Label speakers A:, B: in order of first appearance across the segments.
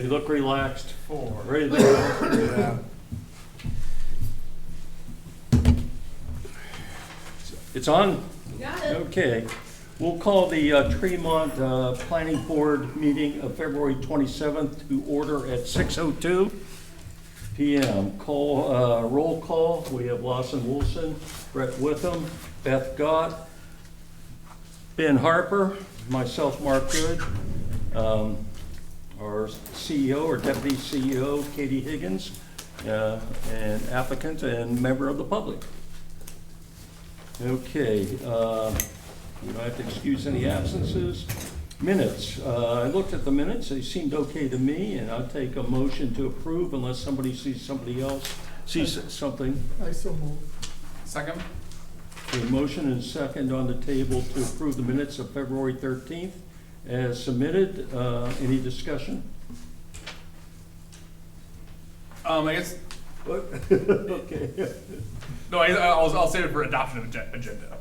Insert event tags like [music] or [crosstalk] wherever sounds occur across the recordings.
A: You look relaxed,
B: Four.
A: ready to go.
B: Yeah.
A: It's on?
C: Got it.
A: Okay. We'll call the uh, Tremont uh, Planning Board meeting of February 27th to order at 6:02 PM. Call, uh, roll call, we have Lawson Wilson, Brett Witham, Beth Gott, Ben Harper, myself, Mark Good, um, our CEO or Deputy CEO, Katie Higgins, uh, and applicant and member of the public. Okay, uh, we don't have to excuse any absences. Minutes, uh, I looked at the minutes, they seemed okay to me, and I'll take a motion to approve unless somebody sees somebody else, sees something.
D: I so move.
B: Second?
A: A motion and second on the table to approve the minutes of February 13th as submitted. Uh, Any
D: [laughs]
A: discussion?
B: Um, I guess,
A: Okay.
B: no, I, I'll, I'll save it for adoption of agen- agenda.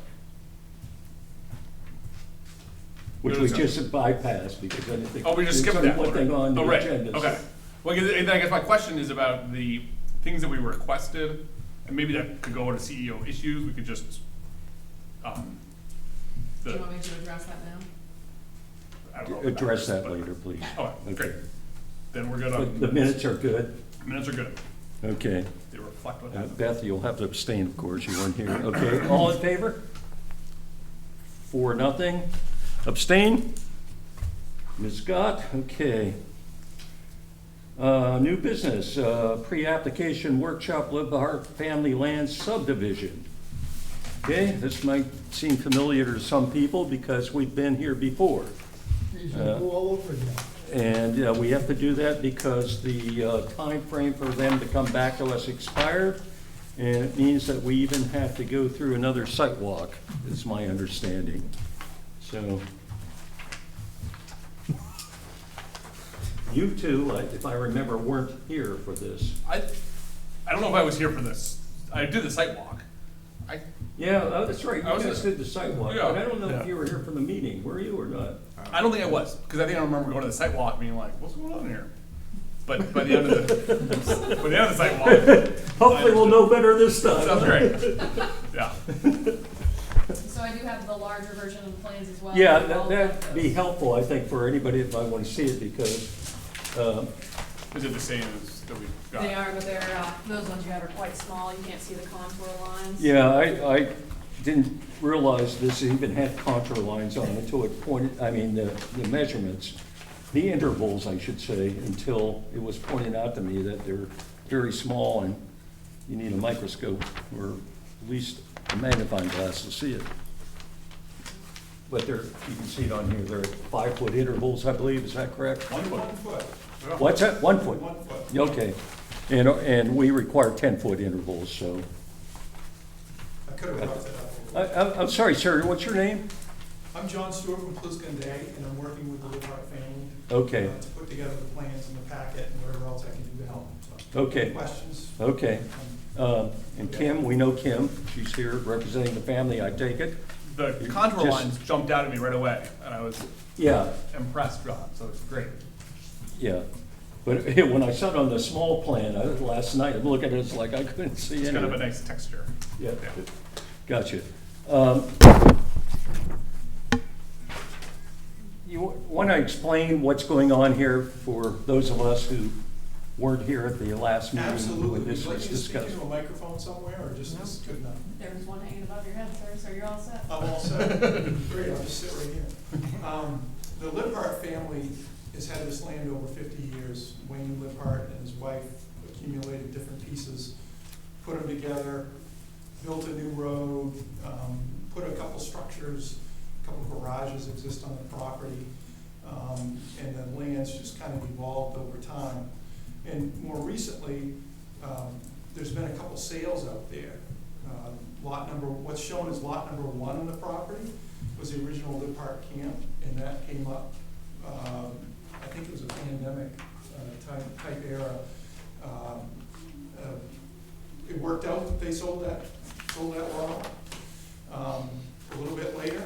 A: Which we just bypassed because I didn't think.
B: Oh, we just
A: there's
B: skipped
A: only
B: that
A: one
B: one.
A: thing on the
B: Oh, right.
A: agenda.
B: Okay. Well, I guess- and I guess my question is about the things that we requested, and maybe that could go into CEO issues, we could just, um,
C: Do you
B: the,
C: want me to address that now?
B: I don't know.
A: Address
B: about
A: that
B: but-
A: later, please.
B: Okay, great.
A: Okay.
B: Then we're good
A: But The
B: on,
A: minutes are good.
B: minutes are good.
A: Okay.
B: They reflect what
A: Uh,
B: happened.
A: Beth, you'll have to abstain, of course, you weren't here. Okay, all in favor? Four, nothing. Abstain? Ms. Scott, okay. Uh, New business, uh, pre-application workshop, Live the Heart Family Land subdivision. Okay, this might seem familiar to some people because we've been here before.
D: You should
A: Yeah.
D: go all over again.
A: And uh, we have to do that because the uh, time frame for them to come back to us expired. And it means that we even have to go through another site walk, is my understanding. So. You two, I- if I remember, weren't here for this.
B: I, I don't know if I was here for this. I did the site walk. I,
A: Yeah, oh, that's right, you
B: I was
A: guys
B: there.
A: did the site walk,
B: Yeah.
A: but I don't know
B: Yeah.
A: if you were here for the meeting, were you or not?
B: I don't think I was, because I think I remember going to the site walk and being like, what's going on here? But by the end of the, by the end of the site walk,
A: [laughs] Hopefully, we'll know better this time.
B: sounds great. Yeah.
C: So I do have the larger version of the plans as Uh, well.
A: Yeah,
C: All
A: that-
C: of
A: that'd be
C: those.
A: helpful, I think, for anybody that might want to see it, because, um,
B: Is it the same as that we got?
C: They are, but they're, uh, those ones you have are quite small, you can't see the contour lines.
A: yeah, I, I didn't realize this even had contour lines on it until it pointed, I mean, the, the measurements, the intervals, I should say, until it was pointed out to me that they're very small and you need a microscope or at least a magnifying glass to see it. But there, you can see it on here, they're five-foot intervals, I believe, is that correct?
B: One foot. Yeah.
A: What's that, one foot?
B: One foot.
A: Okay, and, and we require ten-foot intervals, so.
E: I could have brought that up. a
A: I,
E: little bit.
A: I'm, I'm sorry, sir, what's your name?
E: I'm John Stewart from Pliskin Day, and I'm working with the Levart family.
A: Okay.
E: uh, To put together the plans and the packet and whatever else I can do to help, so.
A: Okay.
E: Questions?
A: Okay,
E: Um,
A: um, and Kim, we know Kim, she's here representing the family, I take it?
B: The contour
A: Just-
B: lines jumped out at me right away, and I was
A: Yeah,
B: impressed, John, so it's great.
A: yeah, but [laughs] when I saw it on the small plan, I, last night, I'm looking at it, it's like I couldn't see
B: It's
A: any.
B: kind of a nice texture.
A: Yeah,
B: Yeah.
A: gotcha. Um, You want to explain what's going on here for those of us who weren't here at the last meeting
E: Absolutely.
A: when
E: Would
A: this
E: you like
A: was
E: me to speak
A: discussed?
E: into a microphone somewhere, or just, this is good enough?
C: There's one hanging above your head, sir, so you're all set.
E: I'm all set. Great, I'll just sit right here. Um, The Liphart family has had this land over fifty years. Wayne Liphart and his wife accumulated different pieces, put them together, built a new road, um, put a couple structures, a couple garages exist on the property. Um, And the land's just kind of evolved over time. And more recently, um, there's been a couple sales out there. Uh, Lot number, what's shown as lot number one on the property was the original Lib Park camp, and that came up, um, I think it was a pandemic uh, type, type era. Um, uh, It worked out that they sold that, sold that lot um, a little bit later.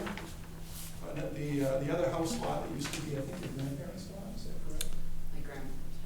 E: But the, uh, the other house lot that used to be, I think, the grandparents'